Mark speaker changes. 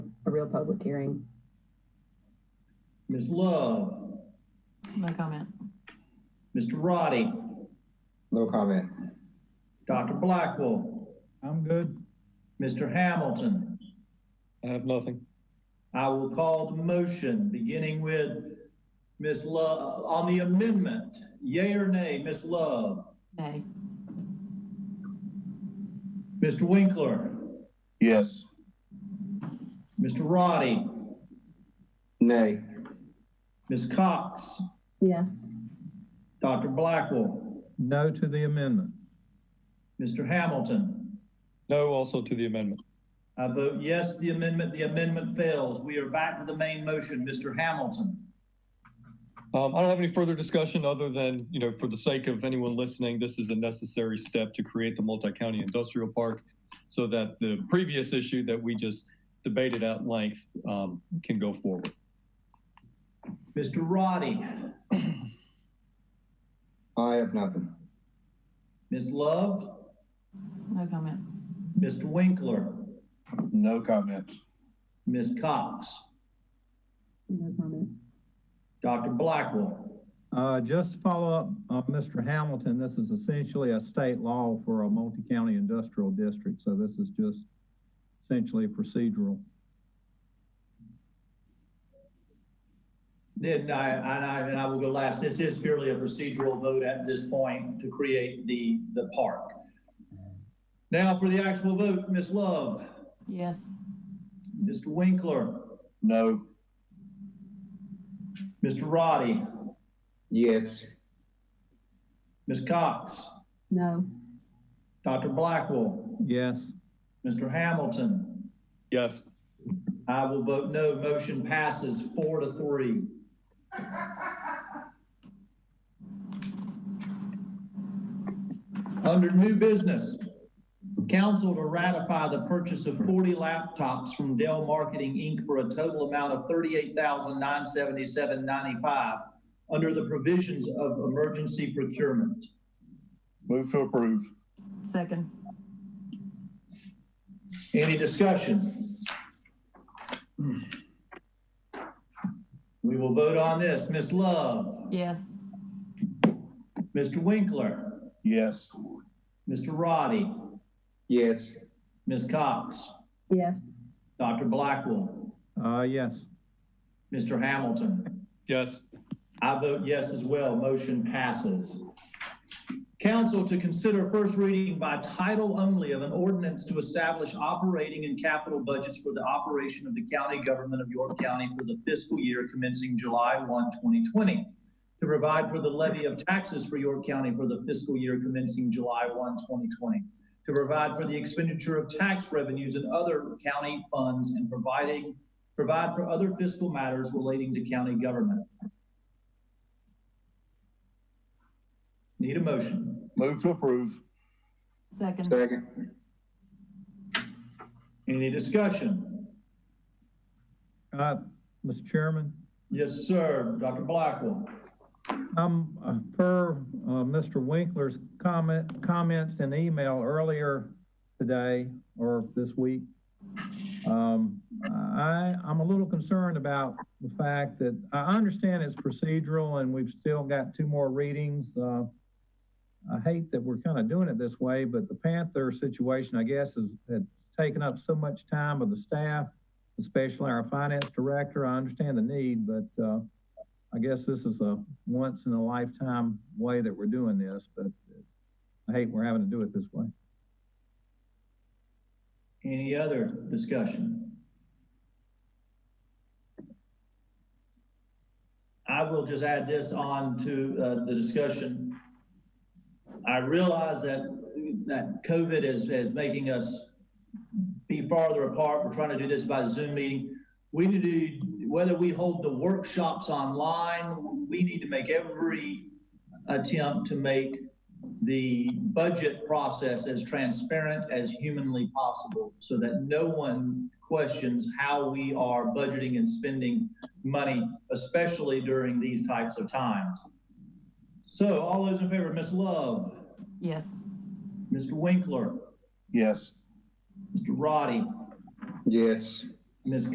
Speaker 1: real public hearing.
Speaker 2: Ms. Love,
Speaker 3: No comment.
Speaker 2: Mr. Roddy,
Speaker 4: No comment.
Speaker 2: Dr. Blackwell,
Speaker 5: I'm good.
Speaker 2: Mr. Hamilton.
Speaker 6: I have nothing.
Speaker 2: I will call the motion, beginning with Ms. Love, on the amendment, yea or nay, Ms. Love,
Speaker 3: Nay.
Speaker 2: Mr. Winkler,
Speaker 4: Yes.
Speaker 2: Mr. Roddy,
Speaker 4: Nay.
Speaker 2: Ms. Cox,
Speaker 1: Yes.
Speaker 2: Dr. Blackwell,
Speaker 5: No to the amendment.
Speaker 2: Mr. Hamilton.
Speaker 6: No also to the amendment.
Speaker 2: I vote yes, to the amendment, the amendment fails. We are back to the main motion, Mr. Hamilton.
Speaker 6: Um, I don't have any further discussion other than, you know, for the sake of anyone listening, this is a necessary step to create the multi-county industrial park so that the previous issue that we just debated at length, um, can go forward.
Speaker 2: Mr. Roddy,
Speaker 4: I have nothing.
Speaker 2: Ms. Love,
Speaker 3: No comment.
Speaker 2: Mr. Winkler,
Speaker 4: No comments.
Speaker 2: Ms. Cox,
Speaker 1: No comment.
Speaker 2: Dr. Blackwell,
Speaker 5: Uh, just to follow up, uh, Mr. Hamilton, this is essentially a state law for a multi-county industrial district, so this is just essentially procedural.
Speaker 2: Then I, and I, and I will go last. This is purely a procedural vote at this point to create the, the park. Now for the actual vote, Ms. Love,
Speaker 3: Yes.
Speaker 2: Mr. Winkler,
Speaker 4: No.
Speaker 2: Mr. Roddy,
Speaker 4: Yes.
Speaker 2: Ms. Cox,
Speaker 1: No.
Speaker 2: Dr. Blackwell,
Speaker 5: Yes,
Speaker 2: Mr. Hamilton.
Speaker 6: Yes.
Speaker 2: I will vote no. Motion passes four to three. Under new business, council to ratify the purchase of 40 laptops from Dell Marketing Inc. for a total amount of $38,977.95 under the provisions of emergency procurement.
Speaker 4: Move to approve.
Speaker 3: Second.
Speaker 2: Any discussion? Hmm. We will vote on this. Ms. Love,
Speaker 3: Yes.
Speaker 2: Mr. Winkler,
Speaker 4: Yes.
Speaker 2: Mr. Roddy,
Speaker 4: Yes.
Speaker 2: Ms. Cox,
Speaker 1: Yes.
Speaker 2: Dr. Blackwell,
Speaker 5: uh, yes.
Speaker 2: Mr. Hamilton.
Speaker 6: Yes.
Speaker 2: I vote yes as well. Motion passes. Council to consider first reading by title only of an ordinance to establish operating and capital budgets for the operation of the county government of York County for the fiscal year commencing July 1, 2020, to provide for the levy of taxes for York County for the fiscal year commencing July 1, 2020, to provide for the expenditure of tax revenues and other county funds, and providing, provide for other fiscal matters relating to county government. Need a motion?
Speaker 4: Move to approve.
Speaker 3: Second.
Speaker 4: Second.
Speaker 2: Any discussion?
Speaker 5: Uh, Mr. Chairman?
Speaker 2: Yes, sir. Dr. Blackwell.
Speaker 5: Um, uh, per, uh, Mr. Winkler's comment, comments in email earlier today or this week, um, I, I'm a little concerned about the fact that, I understand it's procedural and we've still got two more readings. Uh, I hate that we're kind of doing it this way, but the Panther situation, I guess, has, had taken up so much time of the staff, especially our finance director. I understand the need, but, uh, I guess this is a once in a lifetime way that we're doing this, but I hate we're having to do it this way.
Speaker 2: Any other discussion? I will just add this on to uh, the discussion. I realize that, that COVID is, is making us be farther apart. We're trying to do this by Zoom meeting. We need to, whether we hold the workshops online, we need to make every attempt to make the budget process as transparent as humanly possible so that no one questions how we are budgeting and spending money, especially during these types of times. So all those in favor, Ms. Love,
Speaker 3: Yes.
Speaker 2: Mr. Winkler,
Speaker 4: Yes.
Speaker 2: Mr. Roddy,
Speaker 4: Yes.
Speaker 2: Ms.